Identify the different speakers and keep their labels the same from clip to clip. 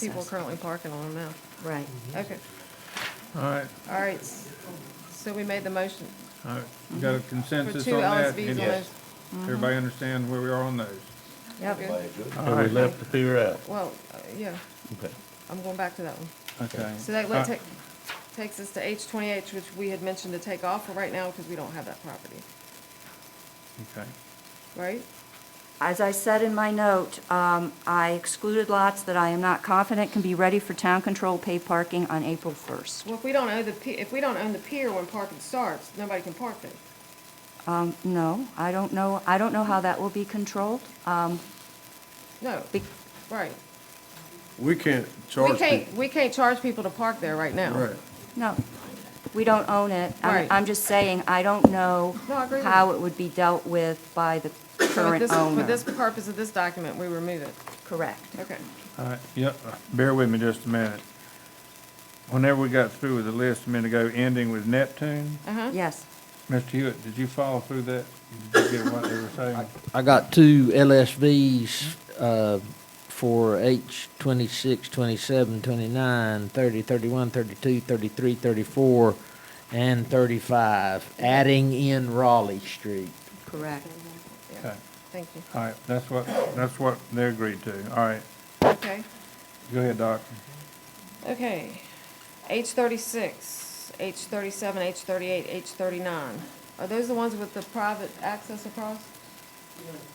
Speaker 1: People are
Speaker 2: access.
Speaker 1: currently parking on them now.
Speaker 2: Right.
Speaker 1: Okay,
Speaker 3: All right,
Speaker 1: all right. s- So we made the motion
Speaker 3: all right. You got a
Speaker 1: for
Speaker 3: consensus
Speaker 1: two
Speaker 3: on that?
Speaker 1: LSVs on
Speaker 3: Yes.
Speaker 1: those.
Speaker 3: Everybody understand where we are on those?
Speaker 2: Yep.
Speaker 1: Okay.
Speaker 4: So we left the fear out.
Speaker 1: Well, uh, yeah,
Speaker 4: Okay.
Speaker 1: I'm going back to that one.
Speaker 3: Okay.
Speaker 1: So that let-
Speaker 3: Uh,
Speaker 1: take- takes us to H twenty-eight, which we had mentioned to take off for right now because we don't have that property,
Speaker 3: Okay.
Speaker 1: right?
Speaker 2: As I said in my note, um, I excluded lots that I am not confident can be ready for town control paid parking on April 1st.
Speaker 1: Well, if we don't own the, pi- if we don't own the pier when parking starts, nobody can park there.
Speaker 2: Um, no, I don't know, I don't know how that will be controlled. Um,
Speaker 1: No,
Speaker 2: be-
Speaker 1: right.
Speaker 5: We can't
Speaker 1: We
Speaker 5: charge
Speaker 1: can't,
Speaker 5: people.
Speaker 1: we can't charge people to park there right now.
Speaker 5: Right.
Speaker 2: no, we don't own it. I'm-
Speaker 1: Right.
Speaker 2: I'm just saying, I don't know
Speaker 1: No, I agree with
Speaker 2: how it would be dealt with by the
Speaker 1: So with
Speaker 2: current
Speaker 1: this- For
Speaker 2: owner.
Speaker 1: this purpose of this document, we remove it.
Speaker 2: Correct.
Speaker 1: Okay.
Speaker 3: All right, yep, bear with me just a minute. Whenever we got through with the list a minute ago, ending with Neptune,
Speaker 1: Uh-huh. Mm-hmm.
Speaker 2: Yes.
Speaker 3: Mr. Hewitt, did you follow through that? Did you get what they were saying?
Speaker 6: I got two LSVs, uh, for H 26, 27, 29, 30, 31, 32, 33, 34, and thirty-five, adding in Raleigh Street.
Speaker 2: Correct.
Speaker 3: Okay,
Speaker 1: Thank you.
Speaker 3: all right, that's what, that's what they agreed to, all right,
Speaker 1: Okay.
Speaker 3: go ahead, Doc.
Speaker 1: Okay. H thirty-six, H thirty-seven, H thirty-eight, H thirty-nine. Are those the ones with the private access across?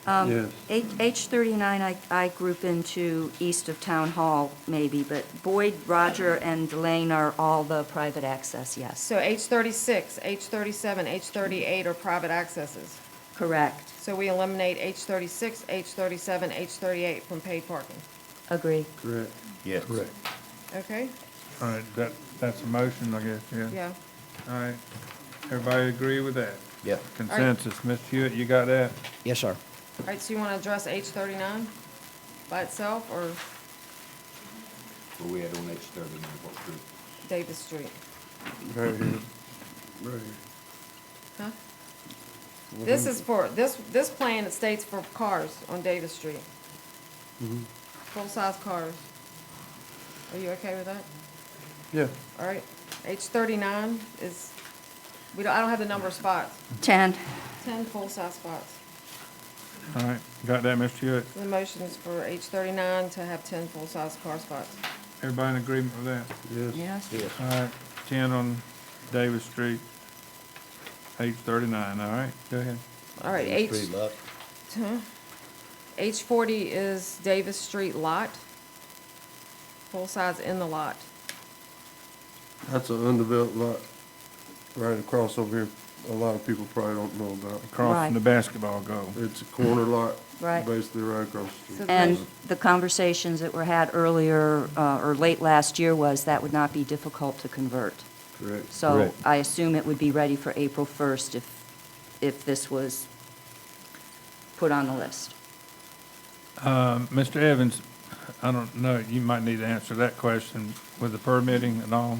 Speaker 1: Um,
Speaker 5: Yes.
Speaker 2: H, H thirty-nine, I, I group into east of Town Hall, maybe, but Boyd, Roger, and Delane are all the private access, yes.
Speaker 1: So H thirty-six, H thirty-seven, H thirty-eight are private accesses.
Speaker 2: Correct,
Speaker 1: So we eliminate H thirty-six, H thirty-seven, H thirty-eight from paid parking.
Speaker 2: agree.
Speaker 5: Correct.
Speaker 4: Yes.
Speaker 5: Correct.
Speaker 1: Okay?
Speaker 3: All right, that, that's a motion, I guess, yeah?
Speaker 1: Yeah.
Speaker 3: All right, everybody agree with that?
Speaker 4: Yeah.
Speaker 3: Consensus, Mr. Hewitt, you got that?
Speaker 6: Yes, sir.
Speaker 1: All right, so you want to address H thirty-nine by itself or
Speaker 7: Where we had on H thirty-nine, what group?
Speaker 1: Davis Street?
Speaker 5: Right here. Right
Speaker 1: Huh? This is for, this, this plan states for cars on Davis Street.
Speaker 5: Mm-hmm.
Speaker 1: Full-size cars. Are you okay with that?
Speaker 5: here.
Speaker 1: All right. H thirty-nine is, we don't, I don't have the number of spots.
Speaker 2: Ten,
Speaker 1: Ten full-size spots.
Speaker 3: All right, got that, Mr. Hewitt?
Speaker 1: The motion is for H thirty-nine to have ten full-size car spots.
Speaker 3: Everybody in agreement with that?
Speaker 5: Yeah, yes.
Speaker 2: yes,
Speaker 3: All right, ten on Davis Street, H thirty-nine, all right, go ahead.
Speaker 1: All right, H.
Speaker 4: Three lot.
Speaker 1: H forty is Davis Street lot. Full size in the lot.
Speaker 5: That's an undeveloped lot right across over here. A lot of people probably don't know about.
Speaker 3: Crossing
Speaker 2: Right.
Speaker 3: the basketball goal.
Speaker 5: It's a corner lot.
Speaker 2: Right.
Speaker 5: Basically right across
Speaker 1: So
Speaker 5: the street.
Speaker 1: the
Speaker 2: And
Speaker 1: motion-
Speaker 2: the conversations that were had earlier, uh, or late last year was that would not be difficult to convert.
Speaker 5: Correct.
Speaker 2: So
Speaker 4: Correct.
Speaker 2: I assume it would be ready for April first if, if this was put on the list.
Speaker 3: Um, Mr. Evans, I don't know, you might need to answer that question with the permitting and all.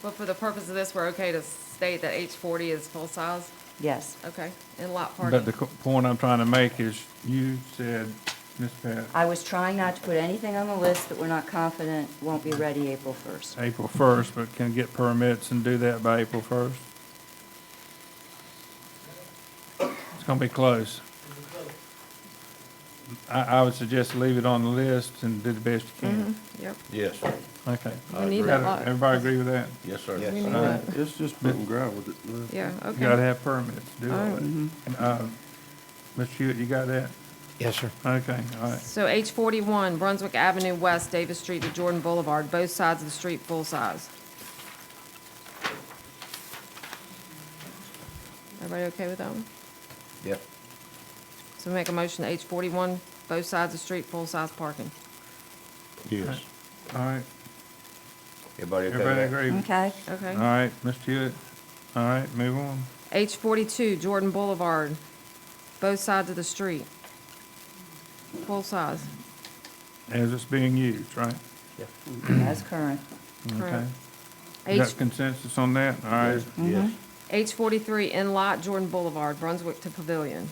Speaker 1: But for the purpose of this, we're okay to state that H forty is full size?
Speaker 2: Yes,
Speaker 1: Okay, in lot
Speaker 3: But
Speaker 1: parking.
Speaker 3: the co- point I'm trying to make is, you said, Ms. Pat,
Speaker 2: I was trying not to put anything on the list that we're not confident won't be ready April first.
Speaker 3: April first, but can get permits and do that by April first? It's gonna be close. I, I would suggest leave it on the list and do the best you can.
Speaker 1: Yep,
Speaker 4: Yes.
Speaker 3: Okay.
Speaker 1: Mm-hmm. we need that lot.
Speaker 3: Everybody agree with that?
Speaker 4: Yes, sir.
Speaker 1: We need
Speaker 3: All
Speaker 1: that.
Speaker 3: right.
Speaker 5: It's just putting gravel that, uh,
Speaker 1: Yeah,
Speaker 3: You gotta
Speaker 1: okay.
Speaker 3: have permits, to do all that. And, uh, Mr. Hewitt, you got that?
Speaker 6: Yes, sir.
Speaker 3: Okay, all right.
Speaker 1: So H forty-one, Brunswick Avenue West, Davis Street to Jordan Boulevard, both sides of the street, full size. Everybody okay with that one?
Speaker 4: Yeah.
Speaker 1: So make a motion to H forty-one, both sides of the street, full size parking.
Speaker 4: Yes.
Speaker 3: All right,
Speaker 4: Everybody okay with
Speaker 3: everybody
Speaker 4: that?
Speaker 3: agree? All
Speaker 2: Okay,
Speaker 1: Okay.
Speaker 3: right, Mr. Hewitt, all right, move on.
Speaker 1: H forty-two, Jordan Boulevard, both sides of the street. Full size,
Speaker 3: As it's being used, right?
Speaker 2: that's current.
Speaker 3: Okay.
Speaker 1: correct.
Speaker 3: You
Speaker 1: H,
Speaker 3: Got consensus on that? All right,
Speaker 1: Mm-hmm.
Speaker 4: Yes.
Speaker 1: H forty-three, in lot Jordan Boulevard, Brunswick to Pavilion.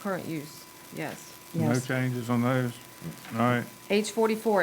Speaker 1: Current use, yes.
Speaker 3: no
Speaker 2: Yes.
Speaker 3: changes on those? All right.
Speaker 1: H forty-four,